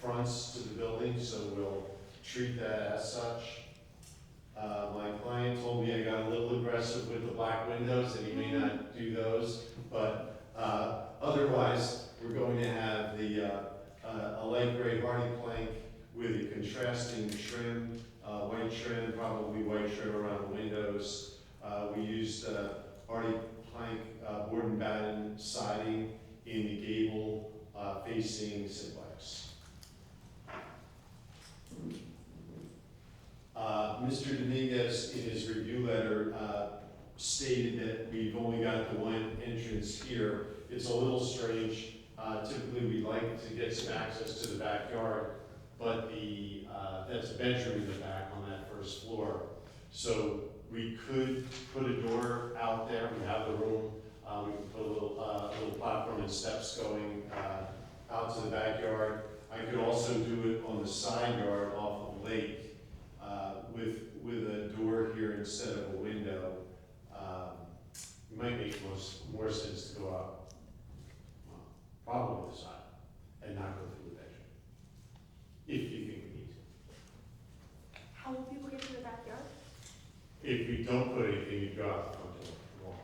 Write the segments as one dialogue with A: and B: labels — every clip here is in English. A: fronts to the building, so we'll treat that as such. Uh, my client told me I got a little aggressive with the black windows, and he may not do those, but, uh, otherwise, we're going to have the, uh, uh, a light gray hardy plank with a contrasting trim, uh, white trim, probably white trim around the windows. Uh, we used, uh, hardy plank, uh, board and batten siding in the gable, uh, facing Simplex. Uh, Mr. Dominguez, in his review letter, uh, stated that we've only got the one entrance here. It's a little strange. Uh, Typically, we like to get some access to the backyard, but the, uh, that's a bedroom in the back on that first floor. So we could put a door out there. We have the room. Uh, We can put a little, uh, little platform and steps going uh, out to the backyard. I could also do it on the side yard off of Lake uh, with, with a door here instead of a window, um, it might make most, more sense to go out, well, probably the side, and not go through the bedroom. If you think we need to.
B: How will people get to the backyard?
A: If we don't put anything, you go out the front door, and walk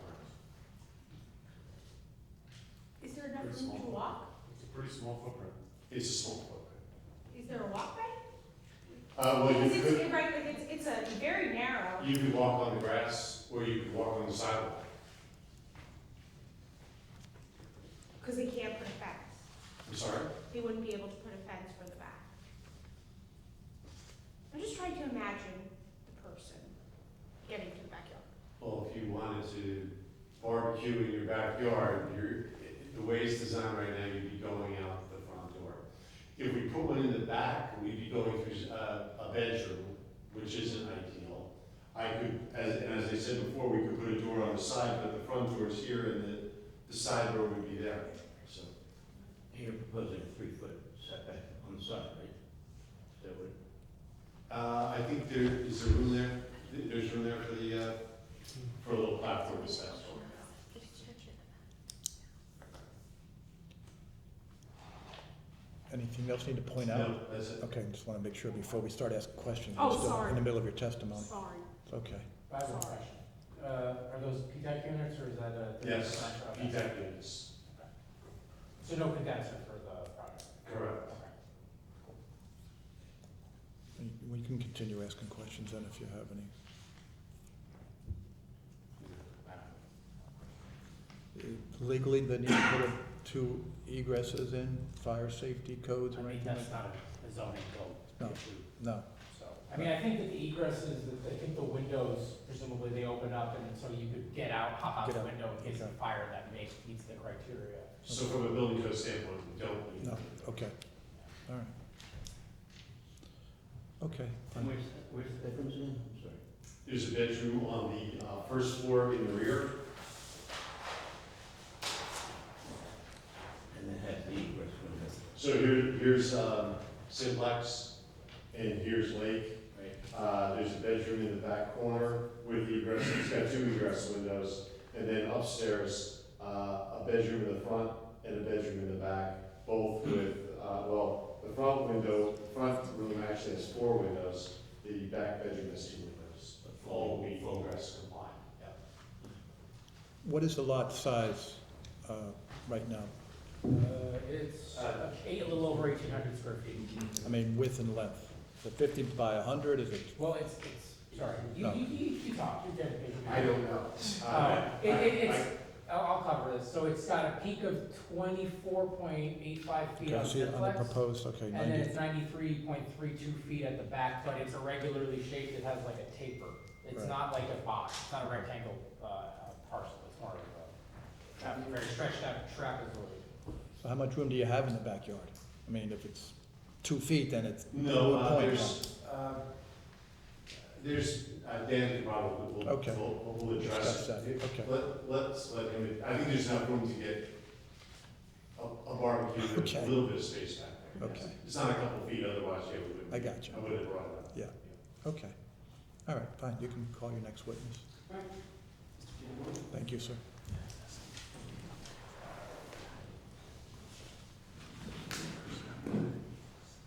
A: around.
B: Is there enough
A: Pretty
B: room to
A: small.
B: walk?
C: It's a pretty small footprint.
A: It's a small footprint.
B: Is there a walkway?
C: Oh,
A: Uh, well, you
B: Because it's,
A: could,
B: it- right, like, it's, it's a very narrow.
A: you could walk on the grass, or you could walk on the sidewalk.
B: Because they can't put a fence.
A: I'm sorry?
B: They wouldn't be able to put a fence for the back. I'm just trying to imagine the person getting to the backyard.
A: Well, if you wanted to barbecue in your backyard, you're, the way it's designed right now, you'd be going out the front door. If we put one in the back, we'd be going through uh, a, a bedroom, which isn't ideal. I could, as, and as I said before, we could put a door on the side, but the front door is here and the, the side door would be there, so.
D: You're proposing a three-foot setback on the side, right? That would,
A: Uh, I think there, is there room there? There- There's room there for the, uh, for a little platform to stand on.
E: Anything else you need to point out?
A: No, that's it.
E: Okay, just want to make sure before we start asking questions.
B: Oh,
E: We're still
B: sorry.
E: In the middle of your testimony.
B: Sorry.
E: It's Okay.
C: I have one
B: Sorry.
C: question. Uh, are those PTAC units or is that a?
A: Yes,
C: Okay.
A: Exactly, yes.
C: So no condenser for the project?
A: Correct.
C: Okay.
E: We can continue asking questions then if you have any. Legally, they need to put a- two egresses in, fire safety codes
C: I
E: or
C: mean,
E: anything?
C: that's not a zoning
E: No.
C: code issue,
E: No,
C: so. I mean, I think that the egress is, that I think the windows presumably they open up and so you could get out, hop out
E: Get
C: the
E: out,
C: window in case of
E: okay.
C: fire that makes, meets the criteria.
A: So from a building code standpoint, we don't need.
E: no, okay, all right. Okay,
D: and where's, where's the bedrooms again? I'm sorry.
A: There's a bedroom on the uh, first floor in the rear.
D: And then have the egress window,
A: So here, here's um, Simplex and here's Lake.
D: right?
A: Uh, There's a bedroom in the back corner with the egress, it's got two egress windows. And then upstairs, uh, a bedroom in the front and a bedroom in the back, both with, uh, well, the front window, front room actually has four windows. The back bedroom has two windows. All meet egress compliant. Yeah.
E: what is the lot size uh, right now?
C: Uh, it's Mm-hmm.
A: Uh,
C: eight, a little over eighteen hundred square feet.
E: I mean, width and length? Is it 50 by 100, is it?
C: Well, it's, it's, sorry, you,
E: No.
C: you, you, you talk, you're dedicated.
A: I don't know.
C: Uh, it,
A: I-
C: it,
A: I-
C: it's, I'll, I'll cover this, so it's got a peak of twenty-four point eight five feet
E: Can I
C: on
E: see it on the
C: Simplex.
E: proposed, okay,
C: And then
E: 90,
C: it's ninety-three point three two feet at the back, but it's irregularly shaped, it has like a taper. It's
E: Right.
C: not like a box, it's not a rectangle, uh, uh, parcel, it's more of a, tra- very stretched out trapezoid.
E: so how much room do you have in the backyard? I mean, if it's two feet, then it's.
A: No,
E: what
A: uh,
E: point?
A: there's, uh, there's, uh, Dan probably will,
E: Okay.
A: will, will address
E: Discuss
A: it.
E: that, okay.
A: Let, let's let him, I think there's enough room to get a, a barbecue, with a
E: Okay.
A: little bit of space back there.
E: Okay.
A: It's not a couple feet, otherwise, yeah, we wouldn't.
E: I got you.
A: I wouldn't have brought it up.
E: Okay, all right, fine, you can call your next witness. Thank you, sir.